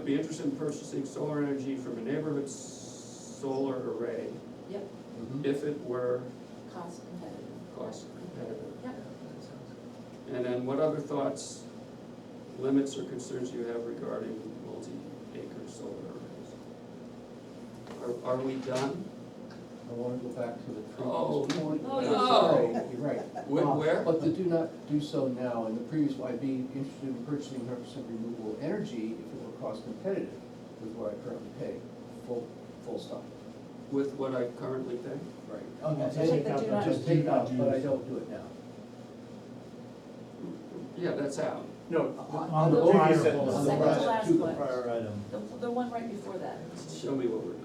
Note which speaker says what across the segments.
Speaker 1: interest in purchasing solar energy from a neighborhood s- solar array
Speaker 2: Yep,
Speaker 3: Mm-hmm.
Speaker 1: if it were
Speaker 2: cost competitive.
Speaker 1: cost competitive.
Speaker 2: Yep.
Speaker 1: And then what other thoughts, limits or concerns you have regarding multi-acre solar arrays? Are, are we done?
Speaker 3: I wanna go back to the
Speaker 1: Oh.
Speaker 3: previous point.
Speaker 2: Oh,
Speaker 3: I'm
Speaker 2: no.
Speaker 3: sorry, You're right.
Speaker 1: Where-
Speaker 3: Uh,
Speaker 1: where?
Speaker 3: But to do not do so now, in the previous, I'd be interested in purchasing hundred percent renewable energy if it were cost competitive with what I currently pay, full, full stop.
Speaker 1: With what I currently pay?
Speaker 3: Right.
Speaker 4: Oh, no,
Speaker 3: And-
Speaker 4: just
Speaker 3: and
Speaker 2: take out the-
Speaker 3: Just take out, but I don't do it now.
Speaker 1: Yeah, that's out.
Speaker 4: On the
Speaker 2: The
Speaker 4: prior
Speaker 3: previous
Speaker 4: poll.
Speaker 3: sentence.
Speaker 4: On the
Speaker 2: Second to
Speaker 3: prior-
Speaker 2: last
Speaker 3: to the
Speaker 2: one,
Speaker 5: Prior item,
Speaker 2: the, the one right before that.
Speaker 1: Show me what we're doing.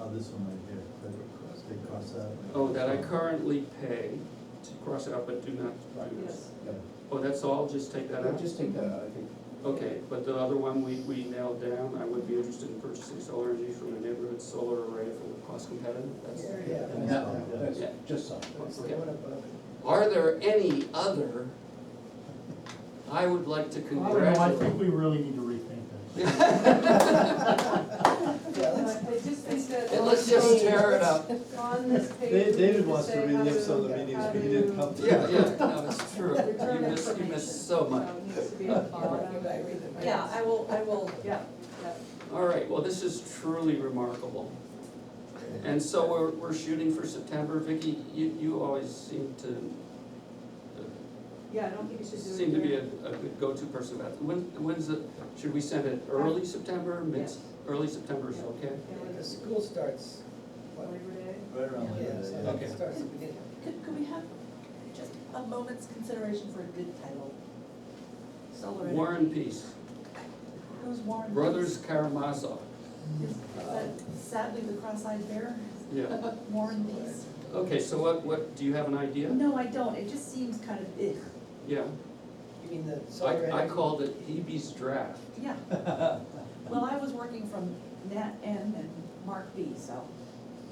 Speaker 5: oh, this one right here, credit cross, they cross out.
Speaker 1: Oh, that I currently pay, to cross it out, but do not do this.
Speaker 2: Yes,
Speaker 3: Yeah.
Speaker 1: Oh, that's all, just take that
Speaker 3: I'll
Speaker 1: out?
Speaker 3: Just take that out, I think.
Speaker 1: Okay, but the other one we, we nailed down, I would be interested in purchasing solar energy from a neighborhood solar array for cost competitive, that's.
Speaker 4: Yeah.
Speaker 3: And that one, that's
Speaker 1: Yeah.
Speaker 3: just something.
Speaker 4: It's the one above it.
Speaker 1: Are there any other? I would like to
Speaker 4: I don't know, I think
Speaker 1: congratulate.
Speaker 4: we really need to rethink this.
Speaker 6: It just is that.
Speaker 1: And let's just tear it up.
Speaker 6: On this page.
Speaker 5: Da- David
Speaker 6: we
Speaker 5: wants to
Speaker 6: say how
Speaker 5: relive
Speaker 6: to-
Speaker 5: some of the meetings
Speaker 6: how
Speaker 5: we
Speaker 6: to-
Speaker 5: didn't come to.
Speaker 1: Yeah, yeah, no, it's true. You
Speaker 6: Return
Speaker 1: miss, you
Speaker 6: information.
Speaker 1: miss so much.
Speaker 6: it needs to be at the bottom.
Speaker 2: yeah, I will, I will,
Speaker 6: Yeah, yeah.
Speaker 1: All right, well, this is truly remarkable. And so we're, we're shooting for September. Vicky, you, you always seem to,
Speaker 6: Yeah, I don't think you should do it.
Speaker 1: seem to be a,
Speaker 6: during-
Speaker 1: a good go-to person about, it. when, when's the, should we send it early September, mid,
Speaker 6: Yes.
Speaker 1: early September is okay?
Speaker 6: Yeah,
Speaker 7: The
Speaker 6: like
Speaker 7: school starts,
Speaker 6: a Labor Day.
Speaker 5: Right around
Speaker 7: yeah,
Speaker 5: Labor Day,
Speaker 7: so
Speaker 5: yeah.
Speaker 1: Okay.
Speaker 7: it starts at the beginning.
Speaker 2: could, could we have just a moment's consideration for a good title? Solar energy.
Speaker 1: War and Peace,
Speaker 2: Who's Warren?
Speaker 1: Brothers Karamazov,
Speaker 2: Is that sadly the cross-eyed bear,
Speaker 1: yeah.
Speaker 2: Warren Beast?
Speaker 1: Okay, so what, what, do you have an idea?
Speaker 2: No, I don't, it just seems kind of ugh,
Speaker 1: Yeah,
Speaker 7: You mean the solar
Speaker 1: I, I
Speaker 7: energy?
Speaker 1: called it Hebe's draft.
Speaker 2: yeah. Well, I was working from Nat N and Mark B, so.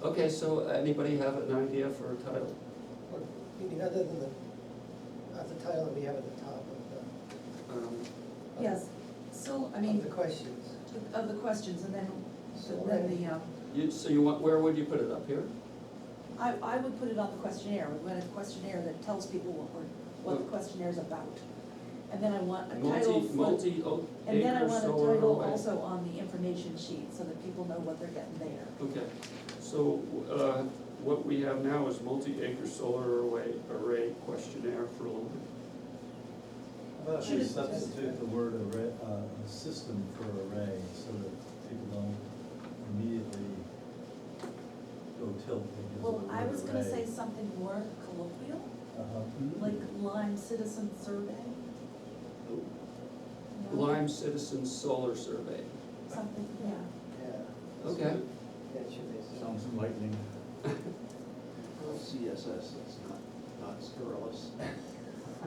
Speaker 1: Okay, so anybody have an idea for a title?
Speaker 7: Or, You mean other than the, not the title that we have at the top of
Speaker 1: Um,
Speaker 2: Yes, so, I
Speaker 7: the, of
Speaker 2: mean,
Speaker 7: the questions?
Speaker 2: of the questions, and then,
Speaker 7: Solar
Speaker 2: then
Speaker 7: energy.
Speaker 2: the, um,
Speaker 1: You, so you want, where would you put it, up here?
Speaker 2: I, I would put it on the questionnaire, we want a questionnaire that tells people what we're, what the questionnaire's about. And then I want a title
Speaker 1: Multi,
Speaker 2: for,
Speaker 1: multi o-
Speaker 2: and then I
Speaker 1: acre
Speaker 2: want a
Speaker 1: solar
Speaker 2: title
Speaker 1: array.
Speaker 2: also on the information sheet, so that people know what they're getting there.
Speaker 1: Okay, so, uh, what we have now is multi-acre solar array, array questionnaire for,
Speaker 5: How about we
Speaker 2: Should it-
Speaker 5: substitute the word array, uh, a system for array, so that people don't immediately go tilt because of
Speaker 2: Well,
Speaker 5: the
Speaker 2: I
Speaker 5: word
Speaker 2: was gonna say
Speaker 5: array.
Speaker 2: something more colloquial,
Speaker 5: Uh-huh.
Speaker 2: like Lime Citizen Survey. No?
Speaker 1: Lime Citizen Solar Survey.
Speaker 2: Something, yeah.
Speaker 7: Yeah,
Speaker 1: Okay,
Speaker 7: yeah, it should be.
Speaker 5: Sounds enlightening.
Speaker 3: CSS, that's not, not scurrilous.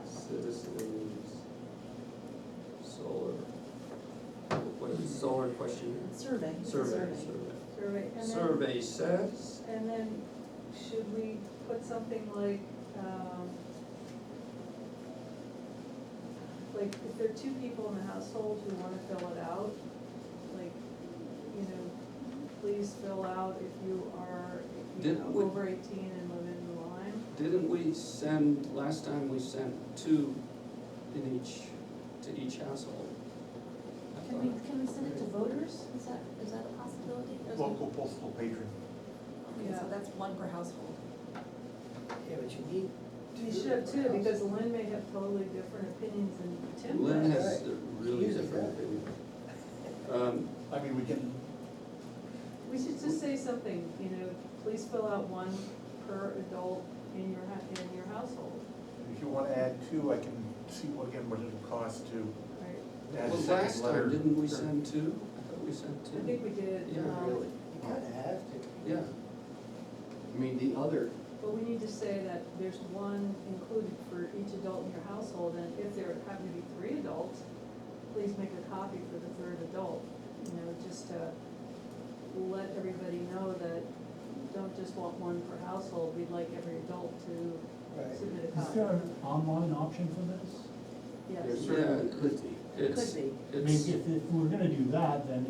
Speaker 1: citizens, solar, what is it, solar questionnaire?
Speaker 2: Survey, it's a
Speaker 1: Survey, survey.
Speaker 6: Survey, and then,
Speaker 1: Survey says,
Speaker 6: and then should we put something like, um, like if there are two people in the household who wanna fill it out, like, you know, please fill out if you are, if you
Speaker 1: Did-
Speaker 6: know,
Speaker 1: would-
Speaker 6: over eighteen and live in the line.
Speaker 1: didn't we send, last time we sent two in each, to each household? I
Speaker 2: Can
Speaker 1: thought-
Speaker 2: we, can we send it to voters? Is that, is that a possibility? Or is it-
Speaker 5: postal patron.
Speaker 2: Okay, so that's one per household.
Speaker 7: Yeah, but you need two.
Speaker 6: You should have two,
Speaker 7: for house.
Speaker 6: because Lynn may have totally different opinions than Tim.
Speaker 1: Lynn
Speaker 6: does.
Speaker 1: has a really
Speaker 7: Use it,
Speaker 1: different
Speaker 7: yeah.
Speaker 1: opinion. Um,
Speaker 5: I mean, we can.
Speaker 6: We should just say something, you know, please fill out one per adult in your, hou- in your household,
Speaker 8: If you wanna add two, I can see what, again, what it'll cost to
Speaker 6: right?
Speaker 8: add a
Speaker 1: Well,
Speaker 8: second
Speaker 1: last
Speaker 8: letter.
Speaker 1: time, didn't we send two? I thought we sent
Speaker 6: I
Speaker 1: two.
Speaker 6: think we did,
Speaker 1: Yeah,
Speaker 6: um,
Speaker 7: Really, you kinda have to.
Speaker 1: Yeah,
Speaker 3: I mean, the other,
Speaker 6: but we need to say that there's one included for each adult in your household, and if there happen to be three adults, please make a copy for the third adult, you know, just to let everybody know that don't just want one per household, we'd like every adult to
Speaker 7: Right.
Speaker 6: submit a
Speaker 4: Is
Speaker 6: copy,
Speaker 4: there an online option for this?
Speaker 6: yes.
Speaker 3: there certainly could be.
Speaker 1: it's,
Speaker 2: Could be.
Speaker 4: I mean,
Speaker 1: it's.
Speaker 4: if, if we're gonna do that, then